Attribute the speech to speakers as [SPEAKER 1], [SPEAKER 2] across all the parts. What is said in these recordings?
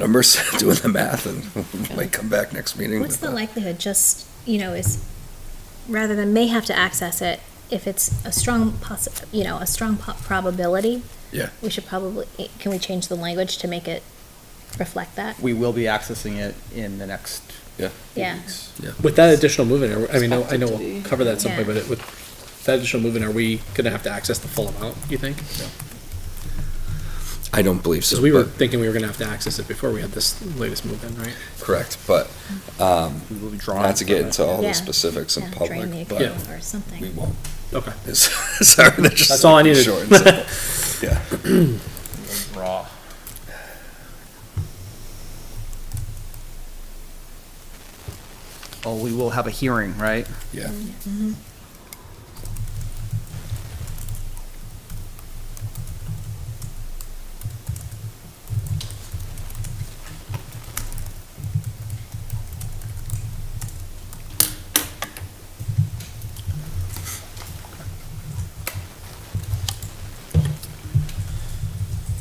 [SPEAKER 1] numbers, doing the math, and might come back next meeting.
[SPEAKER 2] What's
[SPEAKER 1] with
[SPEAKER 2] the
[SPEAKER 1] that.
[SPEAKER 2] likelihood, just, you know, is, rather than may have to access it, if it's a strong possi, you know, a strong po- probability?
[SPEAKER 1] Yeah.
[SPEAKER 2] We should probably, can we change the language to make it reflect that?
[SPEAKER 3] We will be accessing it in the next.
[SPEAKER 1] Yeah.
[SPEAKER 3] few
[SPEAKER 2] Yeah.
[SPEAKER 3] weeks.
[SPEAKER 4] With that additional move-in, I mean, I know- I know we'll
[SPEAKER 5] Expected to be.
[SPEAKER 4] cover that at some point,
[SPEAKER 2] Yeah.
[SPEAKER 4] but it- with that additional move-in, are we gonna have to access the full amount, you think?
[SPEAKER 1] I don't believe so.
[SPEAKER 4] Because we were
[SPEAKER 1] but-
[SPEAKER 4] thinking we were gonna have to access it before we had this latest move-in, right?
[SPEAKER 1] Correct, but, um,
[SPEAKER 3] We will be drawing.
[SPEAKER 1] not to get
[SPEAKER 3] from it.
[SPEAKER 1] into all
[SPEAKER 2] Yeah.
[SPEAKER 1] the specifics in
[SPEAKER 2] Yeah, Drain the
[SPEAKER 1] public, but
[SPEAKER 2] account or
[SPEAKER 1] we
[SPEAKER 2] something.
[SPEAKER 1] won't.
[SPEAKER 4] Okay.
[SPEAKER 1] It's- Sorry, that's just.
[SPEAKER 4] That's all I needed.
[SPEAKER 1] Short and simple. Yeah.
[SPEAKER 3] Raw. Oh, we will have a hearing, right?
[SPEAKER 1] Yeah.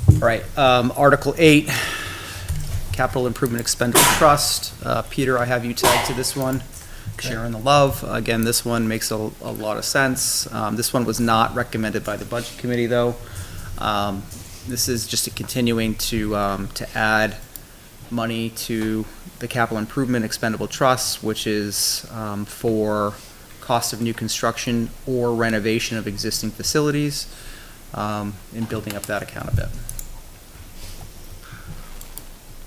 [SPEAKER 3] All right, um, Article eight, Capital Improvement Expenditure Trust. Uh, Peter, I have you tagged to this one. Sharing the love. Again, this one makes a, a lot of sense. Um, this one was not recommended by the Budget Committee, though. Um, this is just a continuing to, um, to add money to the Capital Improvement Expendable Trust, which is, um, for cost of new construction or renovation of existing facilities, um, and building up that account a bit.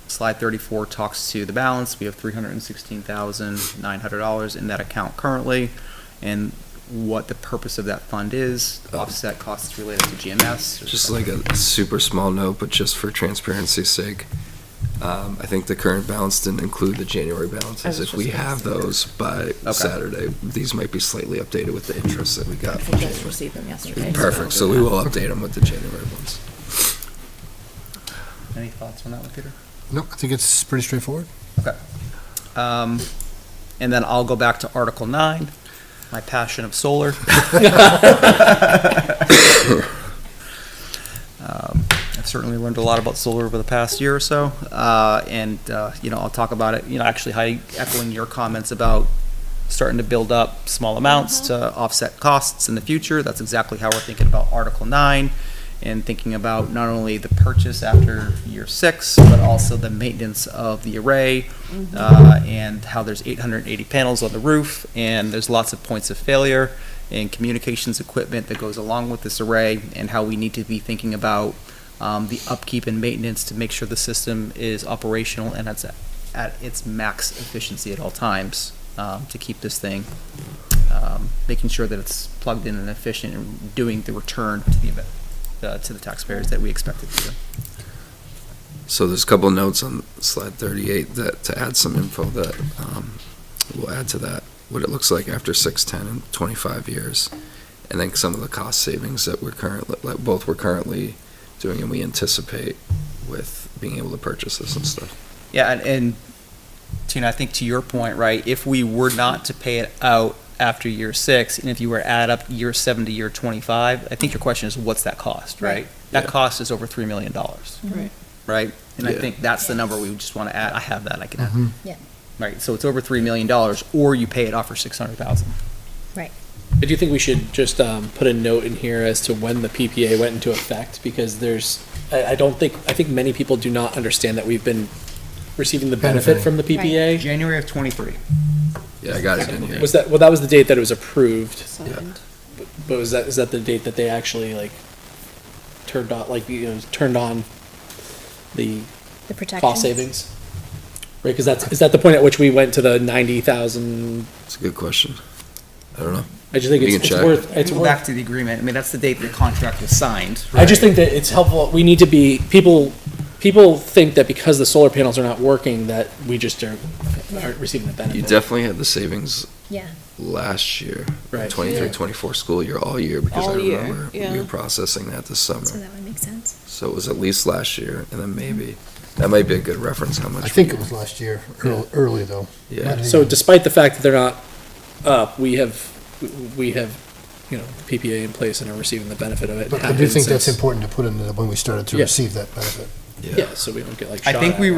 [SPEAKER 3] Slide thirty-four talks to the balance. We have three hundred and sixteen thousand nine hundred dollars in that account currently, and what the purpose of that fund is, offset costs related to GMS.
[SPEAKER 1] Just like a super small note, but just for transparency's sake, um, I think the current balance didn't include the January balances.
[SPEAKER 5] was
[SPEAKER 1] If
[SPEAKER 5] just
[SPEAKER 1] we
[SPEAKER 5] gonna
[SPEAKER 1] have
[SPEAKER 5] say.
[SPEAKER 1] those by Saturday, these might be slightly updated with the interest that
[SPEAKER 5] I
[SPEAKER 1] we got. from
[SPEAKER 5] just
[SPEAKER 1] January.
[SPEAKER 5] received them yesterday.
[SPEAKER 1] Perfect, so we will update them with the January ones.
[SPEAKER 3] Any thoughts on that one, Peter?
[SPEAKER 6] No, I think it's pretty straightforward.
[SPEAKER 3] Um, and then I'll go back to Article Nine, my passion of solar. um, I've certainly learned a lot about solar over the past year or so, uh, and uh, you know I'll talk about it. You know, actually, Heidi, echoing your comments about starting to build up small amounts to offset costs in the future. That's exactly how we're thinking about Article Nine. And thinking about not only the purchase after year six, but also the maintenance of the array, uh, and how there's 880 panels on the roof, and there's lots of points of failure, and communications equipment that goes along with this array, and how we need to be thinking about um, the upkeep and maintenance to make sure the system is operational and it's at- at its max efficiency at all times um, to keep this thing, um, making sure that it's plugged in and efficient and doing the return to the, event- uh, to the taxpayers that we expect it to do.
[SPEAKER 1] So there's a couple of notes on slide 38 that, to add some info that um, we'll add to that, what it looks like after 6, 10, and 25 years. And then some of the cost savings that we're currently, that both we're currently doing and we anticipate with being able to purchase this and stuff.
[SPEAKER 3] Yeah, and, and Tina, I think to your point, right, if we were not to pay it out after year six, and if you were to add up year seven to year twenty-five, I think your question is, what's that cost, right? That
[SPEAKER 1] Yeah.
[SPEAKER 3] cost is over three million dollars,
[SPEAKER 2] Mm-hmm.
[SPEAKER 5] Right.
[SPEAKER 3] right? And I
[SPEAKER 1] Yeah.
[SPEAKER 3] think that's the number we would just want to add. I have that, I can
[SPEAKER 4] Mm-hmm.
[SPEAKER 3] add.
[SPEAKER 2] Yeah.
[SPEAKER 3] Right, so it's over three million dollars, or you pay it off for six hundred thousand.
[SPEAKER 4] I do think we should just um, put a note in here as to when the PPA went into effect, because there's, I, I don't think, I think many people do not understand that we've been receiving the benefit
[SPEAKER 6] Benefiting.
[SPEAKER 4] from the PPA.
[SPEAKER 3] January of twenty-three.
[SPEAKER 1] Yeah, I got it in here.
[SPEAKER 4] Was that, well, that was the date that it was approved,
[SPEAKER 5] Signed.
[SPEAKER 4] but was that, is that the date that they actually like turned on, like, you know, turned on the
[SPEAKER 2] The protection.
[SPEAKER 4] cost savings? Right, because that's, is that the point at which we went to the ninety thousand?
[SPEAKER 1] It's a good question. I don't know.
[SPEAKER 4] I just think
[SPEAKER 1] You
[SPEAKER 4] it's
[SPEAKER 1] can
[SPEAKER 4] it's
[SPEAKER 1] check.
[SPEAKER 4] worth, it's
[SPEAKER 3] Go
[SPEAKER 4] worth
[SPEAKER 3] back to the agreement. I mean, that's the date the contract was signed.
[SPEAKER 4] I just think that it's helpful. We need to be people. People think that because the solar panels are not working, that we just are, aren't receiving the benefit.
[SPEAKER 1] You definitely had the savings
[SPEAKER 2] Yeah,
[SPEAKER 1] last year,
[SPEAKER 4] Right.
[SPEAKER 1] 23,
[SPEAKER 5] Yeah.
[SPEAKER 1] 24 school year, all year, because I
[SPEAKER 5] All year,
[SPEAKER 1] remember we
[SPEAKER 5] yeah.
[SPEAKER 1] were processing that this
[SPEAKER 2] so
[SPEAKER 1] summer.
[SPEAKER 2] that would make sense.
[SPEAKER 1] So it was at least last year, and then maybe, that might be a good reference how much.
[SPEAKER 6] I think
[SPEAKER 1] we-
[SPEAKER 6] it was last year, early, early though.
[SPEAKER 1] Yeah.
[SPEAKER 4] So despite the fact that they're not up, we have we have you know the PPA in place and are receiving the benefit of it.
[SPEAKER 6] But I
[SPEAKER 4] It
[SPEAKER 6] do think
[SPEAKER 4] happens
[SPEAKER 6] that's
[SPEAKER 4] since-
[SPEAKER 6] important to put in the- when we started to
[SPEAKER 4] Yeah.
[SPEAKER 6] receive that benefit.
[SPEAKER 4] Yeah, so we don't get like.
[SPEAKER 3] I
[SPEAKER 4] shot
[SPEAKER 3] think
[SPEAKER 4] at.
[SPEAKER 3] we